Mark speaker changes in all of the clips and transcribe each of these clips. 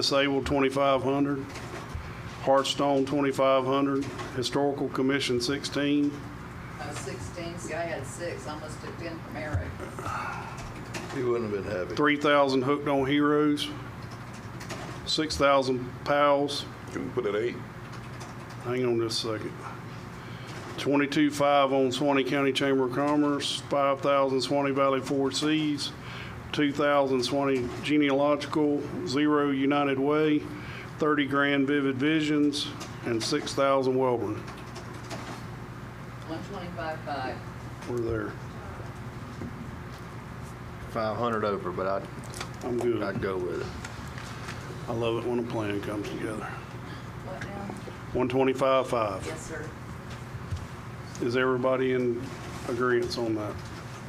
Speaker 1: Disabled twenty-five hundred, Hearthstone twenty-five hundred, Historical Commission sixteen,
Speaker 2: I was 16, Sky had six, I must have been from Eric.
Speaker 3: He wouldn't have been happy.
Speaker 1: three thousand Hooked on Heroes, six thousand Pals,
Speaker 4: Can we put it at eight?
Speaker 1: hang on just a second. Twenty-two five on Swanee County Chamber of Commerce, five thousand Swanee Valley Four Cs, two thousand Swanee Genealogical, zero United Way, thirty grand Vivid Visions, and six thousand Welborn.
Speaker 2: 125.5.
Speaker 1: We're there.
Speaker 3: Five hundred over, but I'd,
Speaker 1: I'm good.
Speaker 3: I'd go with it.
Speaker 1: I love it when a plan comes together.
Speaker 2: What now?
Speaker 1: 125.5.
Speaker 2: Yes, sir.
Speaker 1: Is everybody in agreement on that?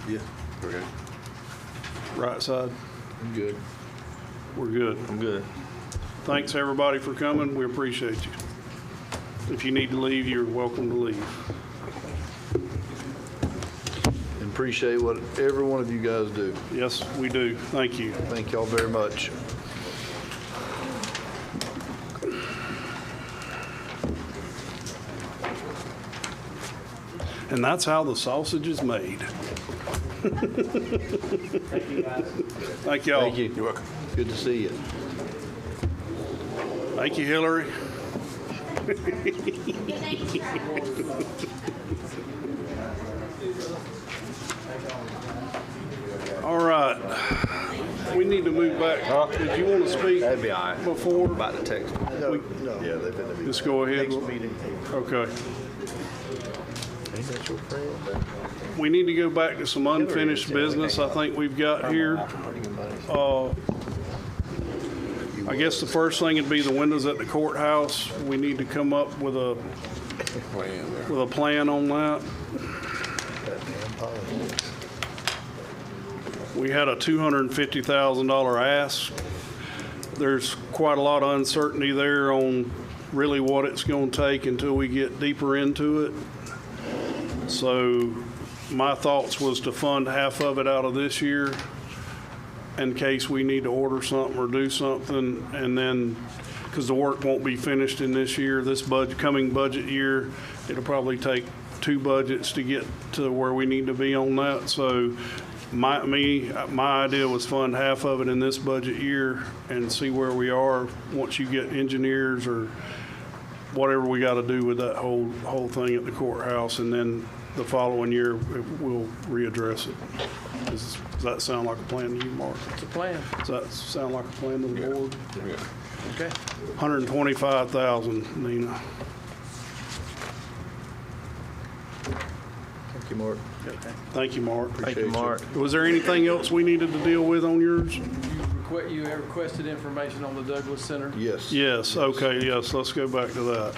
Speaker 3: Yeah.
Speaker 4: Okay.
Speaker 1: Right side?
Speaker 3: I'm good.
Speaker 1: We're good.
Speaker 3: I'm good.
Speaker 1: Thanks, everybody, for coming. We appreciate you. If you need to leave, you're welcome to leave.
Speaker 3: And appreciate what every one of you guys do.
Speaker 1: Yes, we do. Thank you.
Speaker 3: Thank y'all very much.
Speaker 1: And that's how the sausage is made. Thank y'all.
Speaker 3: Thank you.
Speaker 4: You're welcome.
Speaker 3: Good to see you.
Speaker 1: Thank you, Hillary. All right. We need to move back. Did you want to speak
Speaker 3: be all right.
Speaker 1: before?
Speaker 3: the text. No, no. Yeah, they've been to
Speaker 1: Just go ahead.
Speaker 3: meeting.
Speaker 1: Okay.
Speaker 3: Ain't that your friend?
Speaker 1: We need to go back to some unfinished business I think we've got here. Uh, I guess the first thing would be the windows at the courthouse. We need to come up with a,
Speaker 4: Plan there.
Speaker 1: with a plan on that. We had a $250,000 ask. There's quite a lot of uncertainty there on really what it's going to take until we get deeper into it. So my thoughts was to fund half of it out of this year in case we need to order something or do something, and then, because the work won't be finished in this year, this budget, coming budget year, it'll probably take two budgets to get to where we need to be on that, so my, me, my idea was fund half of it in this budget year and see where we are, once you get engineers or whatever we gotta do with that whole, whole thing at the courthouse, and then the following year, we'll readdress it. Does does that sound like a plan to you, Mark?
Speaker 5: It's a plan.
Speaker 1: Does that sound like a plan to the board?
Speaker 4: Yeah.
Speaker 5: Okay.
Speaker 1: 125,000, Nina.
Speaker 3: Thank you, Mark.
Speaker 1: Thank you, Mark.
Speaker 3: Thank you, Mark.
Speaker 1: Was there anything else we needed to deal with on yours?
Speaker 5: You request, you have requested information on the Douglas Center
Speaker 3: Yes.
Speaker 1: Yes, okay, yes, let's go back to that.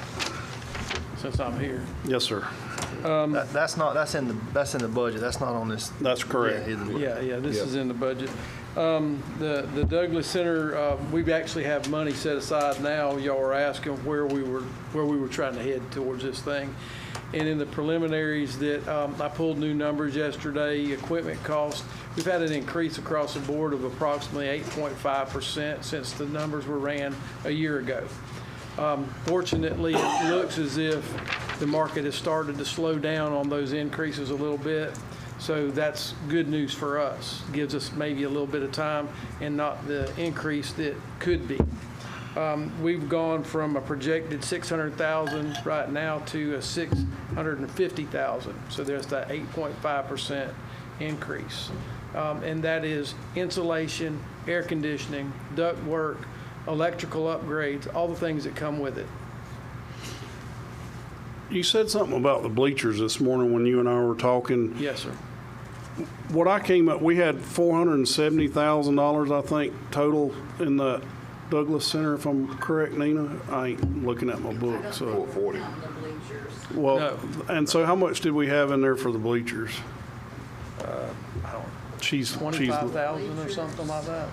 Speaker 5: since I'm here.
Speaker 1: Yes, sir.
Speaker 6: That- That's not, that's in the, that's in the budget, that's not on this.
Speaker 1: That's
Speaker 6: Yeah,
Speaker 1: correct.
Speaker 6: either way.
Speaker 5: Yeah, yeah, this
Speaker 3: Yeah.
Speaker 5: is in the budget. Um, The the Douglas Center, uh, we actually have money set aside now. Y'all were asking where we were, where we were trying to head towards this thing. And in the preliminaries that, um, I pulled new numbers yesterday, equipment cost, we've had an increase across the board of approximately 8.5% since the numbers were ran a year ago. Um, Fortunately, it looks as if the market has started to slow down on those increases a little bit. So that's good news for us. Gives us maybe a little bit of time and not the increase that could be. Um, We've gone from a projected 600,000 right now to a 650,000. So there's that 8.5% increase. Um, And that is insulation, air conditioning, duct work, electrical upgrades, all the things that come with it.
Speaker 1: You said something about the bleachers this morning when you and I were talking.
Speaker 5: Yes, sir.
Speaker 1: What I came up, we had four hundred and seventy thousand dollars, I think, total in the Douglas Center, if I'm correct, Nina. I ain't looking at my book, so.
Speaker 4: Four forty.
Speaker 2: Down the bleachers.
Speaker 1: Well,
Speaker 5: No.
Speaker 1: and so how much did we have in there for the bleachers? She's, she's,
Speaker 5: 25,000 or something like that.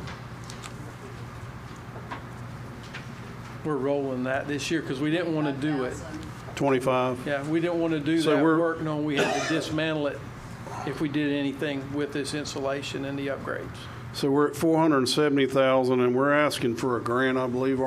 Speaker 5: We're rolling that this year because we didn't want to do it.
Speaker 2: 5,000.
Speaker 1: twenty-five?
Speaker 5: Yeah, we didn't want to do
Speaker 1: So
Speaker 5: that
Speaker 1: we're-
Speaker 5: work knowing we had to dismantle it if we did anything with this insulation and the upgrades.
Speaker 1: So we're at 470,000 and we're asking for a grant, I believe,